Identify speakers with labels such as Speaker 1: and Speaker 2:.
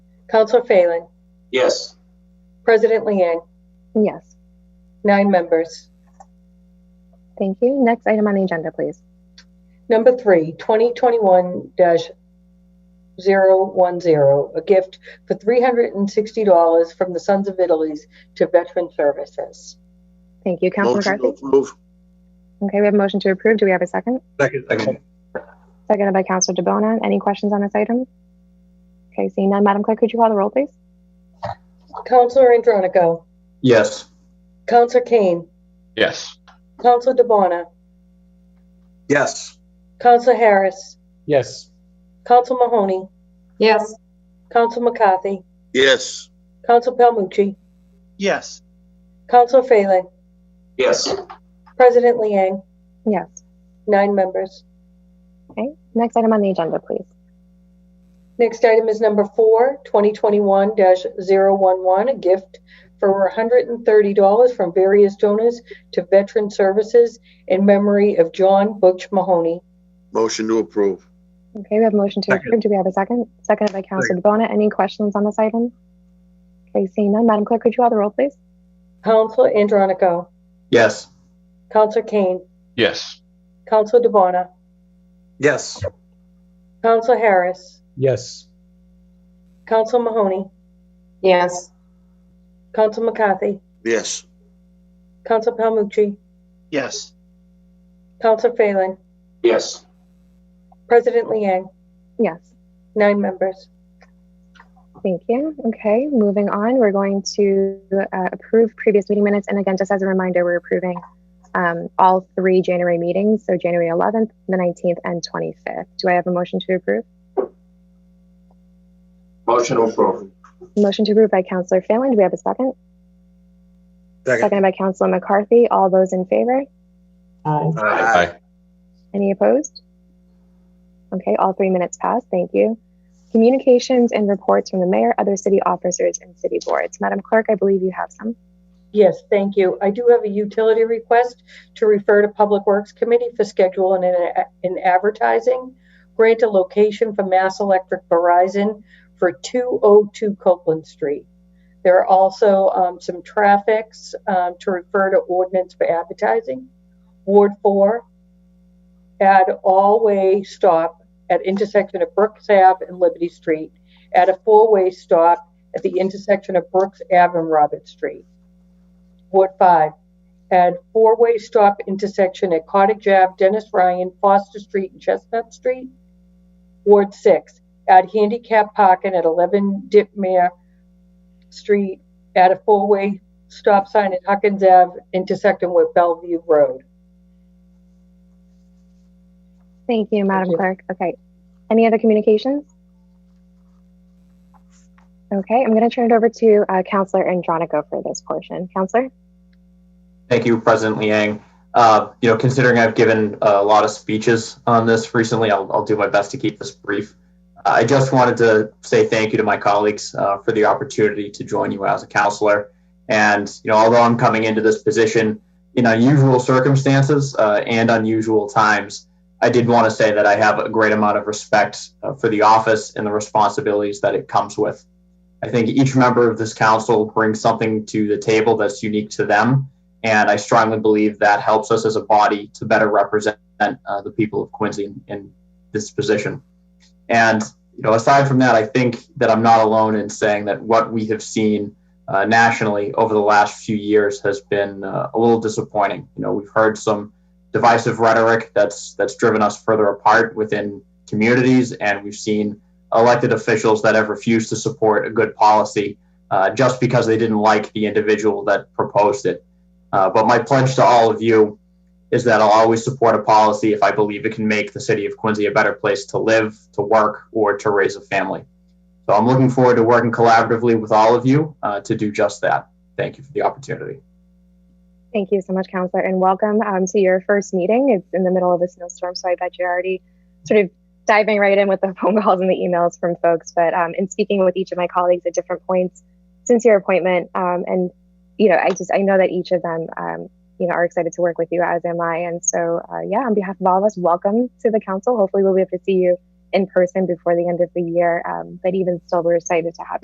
Speaker 1: Counselor Phelan,
Speaker 2: Yes.
Speaker 1: President Liang,
Speaker 3: Yes,
Speaker 1: nine members.
Speaker 3: thank you. Next item on the agenda, please.
Speaker 1: Number three, 2021-010, a gift for $360 from the Sons of Italy's to Veteran Services.
Speaker 3: Thank you, Councilor
Speaker 2: Motion to
Speaker 3: McCarthy.
Speaker 2: approve.
Speaker 3: Okay, we have a motion to approve. Do we have a second?
Speaker 4: Second.
Speaker 3: Seconded by Councilor DeBona. Any questions on this item? Okay, seeing none, Madam Clerk, could you call the roll, please?
Speaker 1: Counselor Andronico,
Speaker 4: Yes.
Speaker 1: Counselor Kane,
Speaker 5: Yes.
Speaker 1: Counselor DeBona,
Speaker 4: Yes.
Speaker 1: Counselor Harris,
Speaker 4: Yes.
Speaker 1: Counselor Mahoney,
Speaker 6: yes,
Speaker 1: Counselor McCarthy,
Speaker 2: Yes.
Speaker 1: Counselor Palmucci,
Speaker 7: yes,
Speaker 1: Counselor Phelan,
Speaker 2: Yes.
Speaker 1: President Liang,
Speaker 3: Yes.
Speaker 1: nine members.
Speaker 3: Okay, next item on the agenda, please.
Speaker 1: Next item is number four, 2021-011, a gift for $130 from various donors to Veteran Services in memory of John Butch Mahoney.
Speaker 2: Motion to approve.
Speaker 3: Okay, we have a motion to
Speaker 4: Second.
Speaker 3: approve. Do we have a second? Seconded by Councilor DeBona. Any questions on this item? Okay, seeing none, Madam Clerk, could you call the roll, please?
Speaker 1: Counselor Andronico,
Speaker 4: Yes.
Speaker 1: Counselor Kane,
Speaker 5: Yes.
Speaker 1: Counselor DeBona,
Speaker 4: Yes.
Speaker 1: Counselor Harris,
Speaker 4: Yes.
Speaker 1: Counselor Mahoney,
Speaker 6: yes,
Speaker 1: Counselor McCarthy,
Speaker 2: Yes.
Speaker 1: Counselor Palmucci,
Speaker 7: yes,
Speaker 1: Counselor Phelan,
Speaker 2: Yes.
Speaker 1: President Liang,
Speaker 3: Yes,
Speaker 1: nine members.
Speaker 3: thank you. Okay, moving on, we're going to uh, approve previous meeting minutes. And again, just as a reminder, we're approving um, all three January meetings, so January 11th, the 19th, and 25th. Do I have a motion to approve?
Speaker 2: Motion to approve.
Speaker 3: Motion to approve by Councilor Phelan. Do we have a second?
Speaker 4: Second.
Speaker 3: Seconded by Councilor McCarthy. All those in favor?
Speaker 6: aye,
Speaker 4: Aye.
Speaker 3: Any opposed? Okay, all three minutes passed. Thank you. Communications and reports from the mayor, other city officers, and city boards. Madam Clerk, I believe you have some.
Speaker 1: Yes, thank you. I do have a utility request to refer to Public Works Committee for schedule and in- in advertising. Grant a location for Mass Electric Verizon for 202 Copeland Street. There are also um, some traffics um, to refer to ordinance for advertising. Ward 4, add all-way stop at intersection of Brooks Ave and Liberty Street. Add a four-way stop at the intersection of Brooks Ave and Robert Street. Ward 5. Add four-way stop intersection at Cottage Ave, Dennis Ryan, Foster Street, and Chestnut Street. Ward 6. Add handicap parking at 11 Dipmere Street. Add a four-way stop sign at Huckins Ave, intersecting with Bellevue Road.
Speaker 3: Thank you, Madam
Speaker 1: you.
Speaker 3: Clerk. Okay. Any other communications? Okay, I'm going to turn it over to uh, Councilor Andronico for this portion. Councilor?
Speaker 8: Thank you, President Liang. Uh, you know, considering I've given a lot of speeches on this recently, I'll, I'll do my best to keep this brief. Uh, I just wanted to say thank you to my colleagues uh, for the opportunity to join you as a counselor. And you know, although I'm coming into this position in unusual circumstances uh, and unusual times, I did want to say that I have a great amount of respect uh, for the office and the responsibilities that it comes with. I think each member of this council brings something to the table that's unique to them and I strongly believe that helps us as a body to better represent uh, the people of Quincy in, in this position. And you know, aside from that, I think that I'm not alone in saying that what we have seen uh, nationally over the last few years has been uh, a little disappointing. You know, we've heard some divisive rhetoric that's that's driven us further apart within communities, and we've seen elected officials that have refused to support a good policy uh, just because they didn't like the individual that proposed it. Uh, but my pledge to all of you is that I'll always support a policy if I believe it can make the city of Quincy a better place to live, to work, or to raise a family. So I'm looking forward to working collaboratively with all of you uh, to do just that. Thank you for the opportunity.
Speaker 3: Thank you so much, Counselor, and welcome um, to your first meeting. It's in the middle of a snowstorm, so I bet you're already sort of diving right in with the phone calls and the emails from folks. But um, in speaking with each of my colleagues at different points since your appointment, um, and you know, I just I know that each of them, um, you know, are excited to work with you, as am I. And so, uh, yeah, on behalf of all of us, welcome to the council. Hopefully, we'll be able to see you in person before the end of the year. Um, but even still, we're excited to have. you.